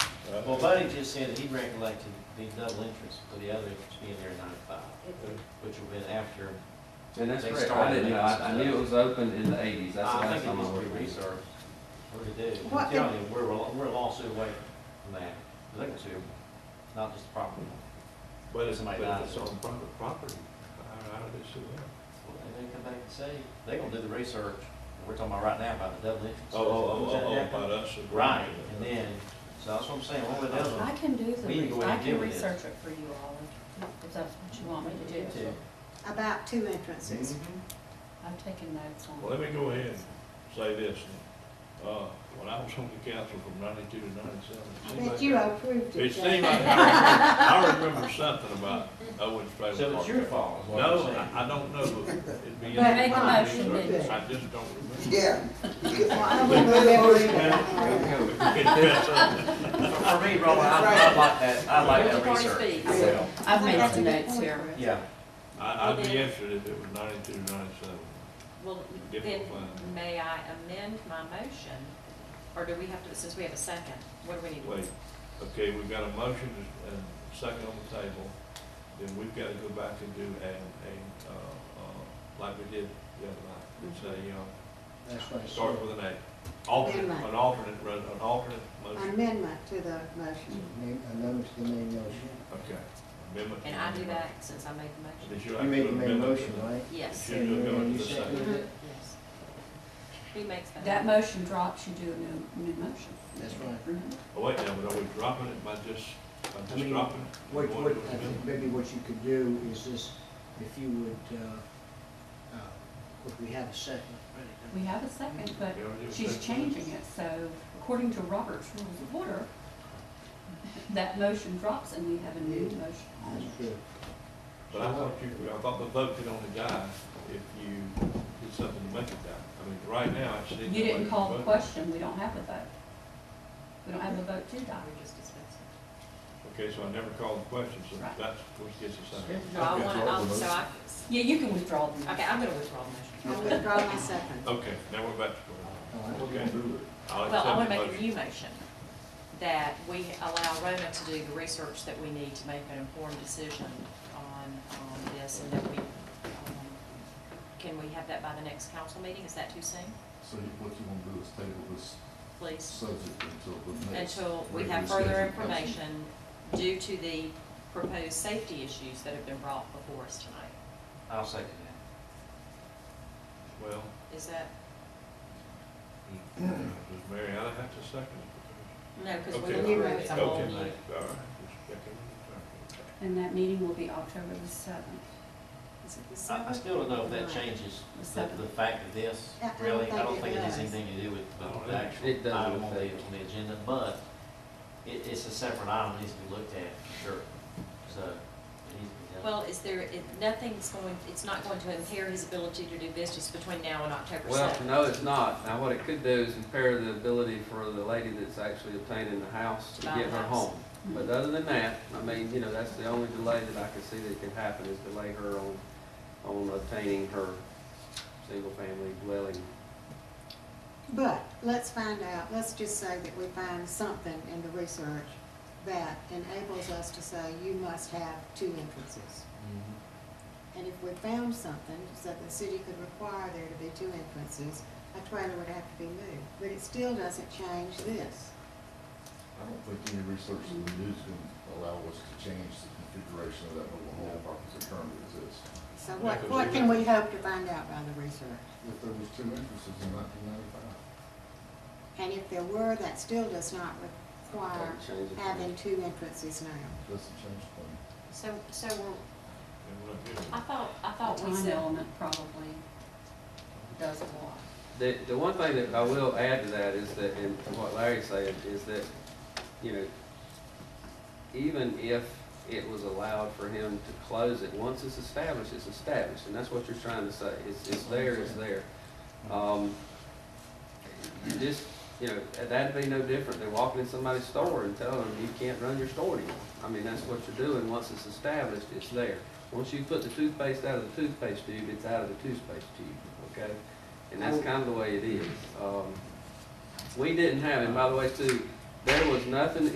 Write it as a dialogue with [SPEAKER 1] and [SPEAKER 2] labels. [SPEAKER 1] Uh, Well, Buddy just said that he recollected the double entrance for the other entrance being there at nine to five, which would have been after,
[SPEAKER 2] And that's
[SPEAKER 1] They
[SPEAKER 2] correct, I
[SPEAKER 1] started
[SPEAKER 2] didn't know, I, I
[SPEAKER 1] making
[SPEAKER 2] knew it was open in the eighties, that's the
[SPEAKER 1] I
[SPEAKER 2] last
[SPEAKER 1] think it
[SPEAKER 2] time I
[SPEAKER 1] needs to
[SPEAKER 2] heard
[SPEAKER 1] be
[SPEAKER 2] it.
[SPEAKER 1] researched. What to do,
[SPEAKER 3] What
[SPEAKER 1] I'm telling you, we're, a- we're a lawsuit away from that, We're looking to, not just the property.
[SPEAKER 4] But it's, but
[SPEAKER 1] Somebody
[SPEAKER 4] if
[SPEAKER 1] dies.
[SPEAKER 4] it's on private property, how, how does she live?
[SPEAKER 1] Well, they may come back and say, they gonna do the research, and we're talking about right now about the double
[SPEAKER 4] Oh,
[SPEAKER 1] entrance. Is that happening?
[SPEAKER 4] us. Uh,
[SPEAKER 1] Right, and then, so that's what I'm saying, what would that
[SPEAKER 5] I
[SPEAKER 1] one?
[SPEAKER 5] can do
[SPEAKER 1] We need to go
[SPEAKER 5] the,
[SPEAKER 1] in
[SPEAKER 5] I
[SPEAKER 1] and deal
[SPEAKER 5] can
[SPEAKER 1] with this.
[SPEAKER 5] research it for you all, if- if that's what you want me to do.
[SPEAKER 3] about two entrances.
[SPEAKER 1] Mm-hmm.
[SPEAKER 5] I've taken notes on it.
[SPEAKER 4] Well, let me go ahead and say this, uh, when I was on the council from ninety-two to ninety-seven. it
[SPEAKER 3] I
[SPEAKER 4] seemed
[SPEAKER 3] bet
[SPEAKER 4] like
[SPEAKER 3] you
[SPEAKER 4] that-
[SPEAKER 3] approved it.
[SPEAKER 4] It
[SPEAKER 3] Jeff.
[SPEAKER 4] seemed like, I remember, I remember something about Owens Trailer Park.
[SPEAKER 1] So it's your fault, is what I'm
[SPEAKER 4] No,
[SPEAKER 1] saying.
[SPEAKER 4] I, I don't know. It'd be.
[SPEAKER 3] But make a
[SPEAKER 5] motion,
[SPEAKER 4] research.
[SPEAKER 5] then.
[SPEAKER 4] I just don't remember.
[SPEAKER 6] Yeah.
[SPEAKER 3] Well, I don't remember it.
[SPEAKER 7] For me, Roland, I, I like that, I like that
[SPEAKER 5] Party
[SPEAKER 7] research.
[SPEAKER 5] speaks.
[SPEAKER 6] Yeah.
[SPEAKER 5] I've made
[SPEAKER 3] That's a
[SPEAKER 5] some
[SPEAKER 3] good
[SPEAKER 5] notes
[SPEAKER 3] point,
[SPEAKER 5] here.
[SPEAKER 3] Chris.
[SPEAKER 1] Yeah,
[SPEAKER 4] I, I'd be
[SPEAKER 8] Well, then-
[SPEAKER 4] interested if it was ninety-two, ninety-seven.
[SPEAKER 8] Well, then,
[SPEAKER 4] Different plan.
[SPEAKER 8] may I amend my motion? Or do we have to, since we have a second, what do we need to
[SPEAKER 4] Wait,
[SPEAKER 8] do?
[SPEAKER 4] okay, we've got a motion and a second on the table, then we've got to go back and do a, a, uh, uh, like we did the other night. And
[SPEAKER 5] Mhm.
[SPEAKER 4] say, you know,
[SPEAKER 7] That's right.
[SPEAKER 4] start with an A, alternate,
[SPEAKER 3] Amendment.
[SPEAKER 4] an alternate, res- an alternate motion.
[SPEAKER 3] Amendment to the motion.
[SPEAKER 6] Name- Amendments to the main motion.
[SPEAKER 4] Okay. Amendment.
[SPEAKER 8] And I do that since I made the
[SPEAKER 4] Did
[SPEAKER 8] motion?
[SPEAKER 4] you
[SPEAKER 6] You made the main
[SPEAKER 4] amendment to
[SPEAKER 6] motion,
[SPEAKER 4] the-
[SPEAKER 6] right?
[SPEAKER 8] Yes,
[SPEAKER 4] You do amendment to the
[SPEAKER 6] You said-
[SPEAKER 4] second.
[SPEAKER 8] yes. Who makes that?
[SPEAKER 5] That motion drops, you do a new, new motion.
[SPEAKER 6] That's right.
[SPEAKER 5] Mhm.
[SPEAKER 4] Oh, wait, now, but are we dropping it by just, by
[SPEAKER 6] I
[SPEAKER 4] just
[SPEAKER 6] mean,
[SPEAKER 4] dropping it?
[SPEAKER 6] What,
[SPEAKER 4] You
[SPEAKER 6] what,
[SPEAKER 4] want to do an
[SPEAKER 6] I think
[SPEAKER 4] amendment?
[SPEAKER 6] maybe what you could do is this, if you would, uh, uh, if we have a second.
[SPEAKER 5] We have a second, but
[SPEAKER 4] You already did a
[SPEAKER 5] she's
[SPEAKER 4] second.
[SPEAKER 5] changing it, so according to Robert's Rules of Order, that motion drops and we have a new motion.
[SPEAKER 6] That's true.
[SPEAKER 4] But I thought you, I thought the vote could only die if you did something to make it die. I mean, right now, I see.
[SPEAKER 5] You didn't call the question, we don't have a vote. We don't have a vote to die.
[SPEAKER 8] We're just discussing.
[SPEAKER 4] Okay, so I never called the question, so
[SPEAKER 5] Right.
[SPEAKER 4] that's what gets us out.
[SPEAKER 8] So I want, I'll- so I,
[SPEAKER 5] Yeah, you can withdraw the motion.
[SPEAKER 8] okay, I'm gonna withdraw the
[SPEAKER 3] I
[SPEAKER 8] motion.
[SPEAKER 3] withdraw my second.
[SPEAKER 4] Okay, now we're back to
[SPEAKER 6] All right.
[SPEAKER 4] square. one. Okay. I'll
[SPEAKER 8] Well, I
[SPEAKER 4] accept
[SPEAKER 8] want
[SPEAKER 4] the
[SPEAKER 8] to make a
[SPEAKER 4] motion.
[SPEAKER 8] new motion, that we allow Rona to do the research that we need to make an informed decision on, on this, and that we, um, can we have that by the next council meeting? Is that too soon?
[SPEAKER 9] So you- what you want to do is table this
[SPEAKER 8] Please,
[SPEAKER 9] subject until the next.
[SPEAKER 8] until we
[SPEAKER 9] regular
[SPEAKER 8] have further
[SPEAKER 9] scheduled council.
[SPEAKER 8] information due to the proposed safety issues that have been brought before us tonight.
[SPEAKER 1] I'll second that.
[SPEAKER 4] Well,
[SPEAKER 8] Is that,
[SPEAKER 4] does does Mary Allen have to second it?
[SPEAKER 8] no, because
[SPEAKER 4] Okay.
[SPEAKER 8] we're looking at
[SPEAKER 4] Okay,
[SPEAKER 8] the
[SPEAKER 4] all
[SPEAKER 8] whole
[SPEAKER 4] right.
[SPEAKER 8] new.
[SPEAKER 4] Just checking. Okay.
[SPEAKER 5] And that meeting will be October the seventh.
[SPEAKER 8] Is it the
[SPEAKER 1] I, I
[SPEAKER 8] seventh?
[SPEAKER 1] still don't know if that changes the, the fact of this,
[SPEAKER 3] Yeah, I don't
[SPEAKER 1] really. I don't
[SPEAKER 3] think
[SPEAKER 1] think
[SPEAKER 3] it
[SPEAKER 1] it has
[SPEAKER 3] does.
[SPEAKER 1] anything to do with the- the actual
[SPEAKER 2] Oh, It doesn't
[SPEAKER 1] item on the,
[SPEAKER 2] affect.
[SPEAKER 1] on the agenda, but it, it's a separate item, needs to be looked at, for sure. So, it needs to be done.
[SPEAKER 8] Well, is there, it- nothing's going, it's not going to impair his ability to do business between now and October
[SPEAKER 2] Well,
[SPEAKER 8] 7th?
[SPEAKER 2] no, it's not. Now, what it could do is impair the ability for the lady that's actually obtaining the house to
[SPEAKER 8] Buy
[SPEAKER 2] get
[SPEAKER 8] the
[SPEAKER 2] her
[SPEAKER 8] house.
[SPEAKER 2] home. But other than that, I mean, you know, that's the only delay that I can see that could happen is delay her on, on obtaining her single-family dwelling.
[SPEAKER 3] But let's find out, let's just say that we find something in the research that enables us to say you must have two entrances.
[SPEAKER 1] Mhm.
[SPEAKER 2] Mm-hmm.
[SPEAKER 3] And if we found something, so that the city could require there to be two entrances, a trailer would have to be moved. But it still doesn't change this.
[SPEAKER 9] I don't think any research that we do is going to allow us to change the configuration of that mobile home park as it currently exists.
[SPEAKER 3] So what, what can we hope to find out by the research?
[SPEAKER 9] If there was two entrances in nineteen ninety-five.
[SPEAKER 3] And if there were, that still does not require
[SPEAKER 2] Doesn't uh, change it.
[SPEAKER 3] having two entrances now.
[SPEAKER 9] Doesn't change the plan.
[SPEAKER 8] So, so we're,
[SPEAKER 4] And we're not getting it.
[SPEAKER 8] I thought, I
[SPEAKER 5] The
[SPEAKER 8] thought we
[SPEAKER 5] time
[SPEAKER 8] said,
[SPEAKER 5] element probably does a lot.
[SPEAKER 2] The, the one thing that I will add to that is that, and to what Larry said, is that, you know, even if it was allowed for him to close it, once it's established, it's established, and that's what you're trying to say, it's, it's there, it's there. Um, you just, you know, that'd be no different than walking in somebody's store and telling them you can't run your store anymore. I mean, that's what you're doing, once it's established, it's there. Once you put the toothpaste out of the toothpaste tube, it's out of the toothpaste tube, okay? And that's kind of the way it is. Um, we didn't have, and by the way, too, there was nothing